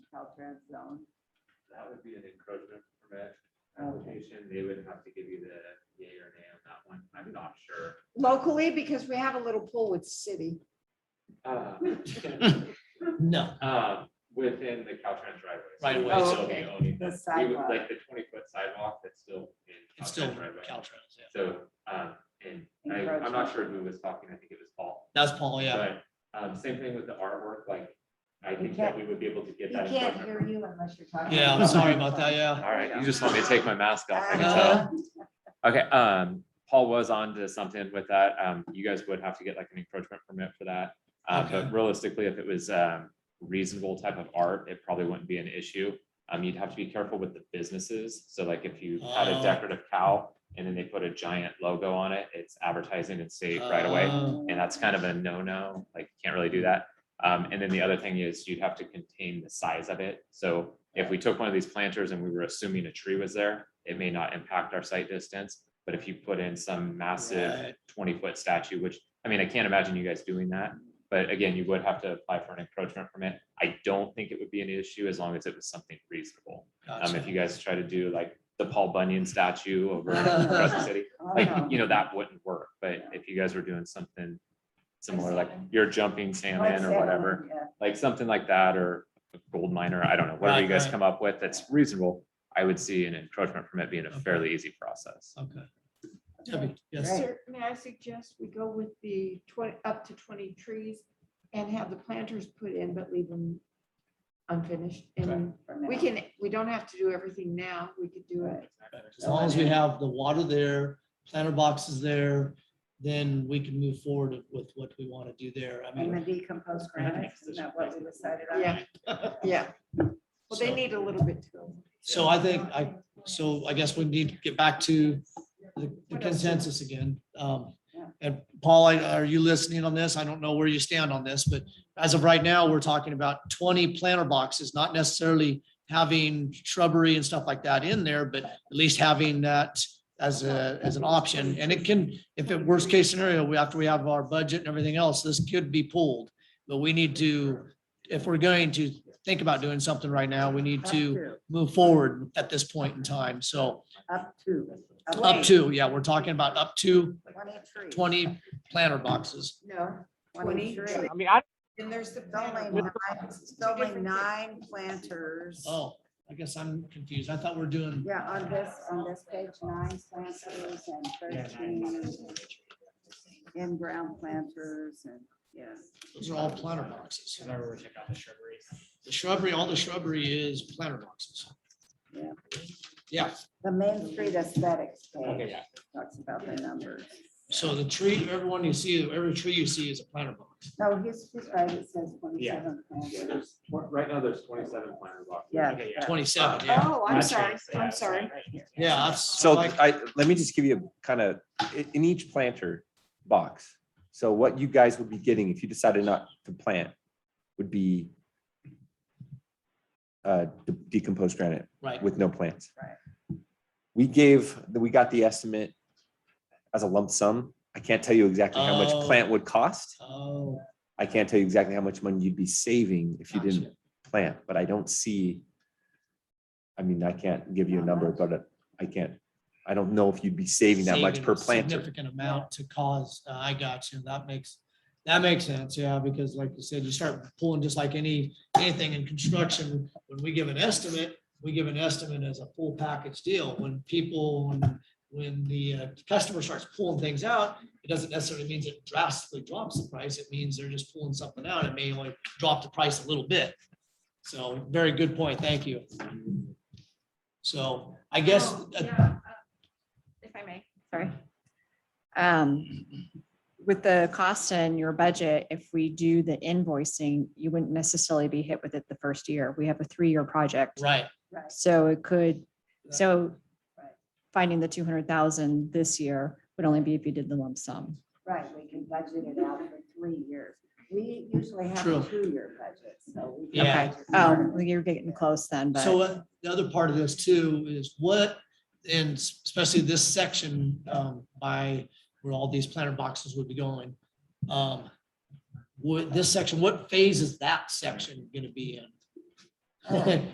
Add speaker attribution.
Speaker 1: red zone.
Speaker 2: That would be an encroachment permit
Speaker 1: Okay.
Speaker 2: application. They would have to give you the yay or nay on that one. I'm not sure.
Speaker 1: Locally, because we have a little pool with city.
Speaker 2: Uh,
Speaker 3: No,
Speaker 2: um, Within the Caltrans driveway.
Speaker 3: Right away,
Speaker 2: So
Speaker 1: Oh,
Speaker 2: we
Speaker 1: okay.
Speaker 2: only-
Speaker 1: The
Speaker 2: we would
Speaker 1: sidewalk.
Speaker 2: Like the twenty foot sidewalk that's still in.
Speaker 3: it's
Speaker 2: Caltrans
Speaker 3: still
Speaker 2: driveway.
Speaker 3: Caltrans, yeah.
Speaker 2: So, um, and I, I'm not sure who was talking. I think it was Paul.
Speaker 3: That's Paul, Oh, yeah.
Speaker 2: But, um, same thing with the artwork, like, I
Speaker 1: You
Speaker 2: think
Speaker 1: can't-
Speaker 2: that we would be able to
Speaker 1: You
Speaker 2: get that.
Speaker 1: can't
Speaker 2: encroachment
Speaker 1: hear
Speaker 2: permit.
Speaker 1: you unless you're talking.
Speaker 3: Yeah, I'm sorry about that, yeah.
Speaker 2: All right, you just let me take my mask off. I can tell.
Speaker 3: Uh,
Speaker 2: Okay, um, Paul was on to something with that. Um, you guys would have to get like an encroachment permit for that. Uh, but
Speaker 3: Okay.
Speaker 2: realistically, if it was, um, reasonable type of art, it probably wouldn't be an issue. Um, you'd have to be careful with the businesses. So like if you had a
Speaker 3: Oh.
Speaker 2: decorative cow and then they put a giant logo on it, it's advertising and safe right away.
Speaker 3: Uh,
Speaker 2: And that's kind of a no-no, like you can't really do that. Um, and then the other thing is you'd have to contain the size of it. So if we took one of these planters and we were assuming a tree was there, it may not impact our site distance. But if you put in some massive
Speaker 3: right.
Speaker 2: twenty-foot statue, which, I mean, I can't imagine you guys doing that. But again, you would have to apply for an encroachment permit. I don't think it would be an issue as long as it was something reasonable. Um, if
Speaker 3: Gotcha.
Speaker 2: you guys try to do like the Paul Bunyan statue over in Crescent City, like,
Speaker 1: Oh.
Speaker 4: Um,
Speaker 2: you know, that wouldn't work, but
Speaker 1: Yeah.
Speaker 2: if you guys were doing something similar, like
Speaker 5: salmon.
Speaker 2: you're jumping salmon or whatever, like something like that, or a gold miner, I don't know, whatever
Speaker 3: Right,
Speaker 2: you guys
Speaker 3: right.
Speaker 2: come up with that's reasonable, I would see an encroachment permit being a
Speaker 3: Okay.
Speaker 2: fairly easy process.
Speaker 3: Okay.
Speaker 1: Okay,
Speaker 3: Debbie, yes,
Speaker 4: Sir, may I suggest we go with the twenty, up to twenty trees and have the planters put in, but leave them unfinished? And we can, we don't have to do everything now. We could do it.
Speaker 3: as long as we have the water there, planter boxes there, then we can move forward with what we want to do there. I
Speaker 1: And the
Speaker 3: mean.
Speaker 1: decomposed granite, isn't that what we decided on?
Speaker 4: Yeah, yeah. Well, they
Speaker 3: so-
Speaker 4: need a little bit too.
Speaker 3: So I think I, so I guess we need to get back to the the consensus again. Um,
Speaker 1: Yeah.
Speaker 3: and Paul, I- are you listening on this? I don't know where you stand on this, but as of right now, we're talking about twenty planter boxes, not necessarily having shrubbery and stuff like that in there, but at least having that as a, as an option. And it can, if it worst case scenario, we, after we have our budget and everything else, this could be pulled. But we need to, if we're going to think about doing something right now, we need
Speaker 1: Up
Speaker 3: to
Speaker 1: to-
Speaker 3: move forward at this point in time. So
Speaker 1: Up to.
Speaker 3: up to, yeah, we're talking about up to
Speaker 1: Twenty-three.
Speaker 3: twenty planter boxes.
Speaker 4: No,
Speaker 1: Twenty.
Speaker 4: Twenty.
Speaker 6: I mean, I,
Speaker 4: and there's the.
Speaker 1: It's only
Speaker 4: planter
Speaker 1: nine,
Speaker 4: box.
Speaker 1: it's only
Speaker 4: Different
Speaker 1: nine planters.
Speaker 3: Oh, I guess I'm confused. I thought we're doing,
Speaker 1: Yeah, on this, on this page, nine planters and thirteen in-ground planters and, yes.
Speaker 3: those are all planter boxes. The shrubbery, all the shrubbery is planter boxes.
Speaker 1: Yeah.
Speaker 3: Yeah,
Speaker 1: The Main Street aesthetics
Speaker 3: Okay,
Speaker 1: page
Speaker 3: yeah.
Speaker 1: talks about the numbers.
Speaker 3: so the tree, everyone you see, every tree you see is a planter box.
Speaker 1: No, he's, he's right, it says twenty-seven
Speaker 2: Yeah,
Speaker 1: planters.
Speaker 2: there's, right now, there's twenty-seven planter boxes.
Speaker 1: Yeah.
Speaker 3: Twenty-seven, yeah,
Speaker 4: Oh, I'm sorry. I'm sorry.
Speaker 3: yeah. that's-
Speaker 7: So
Speaker 3: like-
Speaker 7: I, let me just give you a kind of, in, in each planter box. So what you guys would be getting if you decided not to plant would be uh, de- decomposed granite
Speaker 3: Right,
Speaker 7: with no plants.
Speaker 1: Right.
Speaker 7: We gave, we got the estimate as a lump sum. I can't tell you exactly how much
Speaker 3: Oh.
Speaker 7: plant would cost.
Speaker 3: oh,
Speaker 7: I can't tell you exactly how much money you'd be saving if you didn't
Speaker 3: Gotcha.
Speaker 7: plant, but I don't see. I mean, I can't give you a number, but I can't, I don't know if you'd be saving that much
Speaker 3: saving
Speaker 7: per
Speaker 3: a
Speaker 7: planter.
Speaker 3: Significant amount to cause, uh, I got you, that makes, that makes sense, yeah, because like you said, you start pulling just like any, anything in construction, when we give an estimate, we give an estimate as a full package deal, when people, when, when the uh, customer starts pulling things out, it doesn't necessarily means it drastically drops the price, it means they're just pulling something out, it may only drop the price a little bit. So, very good point, thank you. So, I guess,
Speaker 5: Oh,
Speaker 3: uh,
Speaker 5: yeah, uh, If I may, sorry. Um, With the cost and your budget, if we do the invoicing, you wouldn't necessarily be hit with it the first year. We have a three-year project.
Speaker 3: right,
Speaker 1: Right.
Speaker 5: So it could, so
Speaker 1: Right.
Speaker 5: finding the two hundred thousand this year would only be if you did the lump sum.
Speaker 1: Right, we can budget it out for three years. We usually have
Speaker 3: True.
Speaker 1: a two-year budget, so. we can
Speaker 3: Yeah.
Speaker 5: Okay.
Speaker 1: budget
Speaker 5: Oh,
Speaker 1: more.
Speaker 5: well, you're getting close then, but.
Speaker 3: So uh, the other part of this too is what, and especially this section um, by where all these planter boxes would be going. um, Would this section, what phase is that section gonna be in?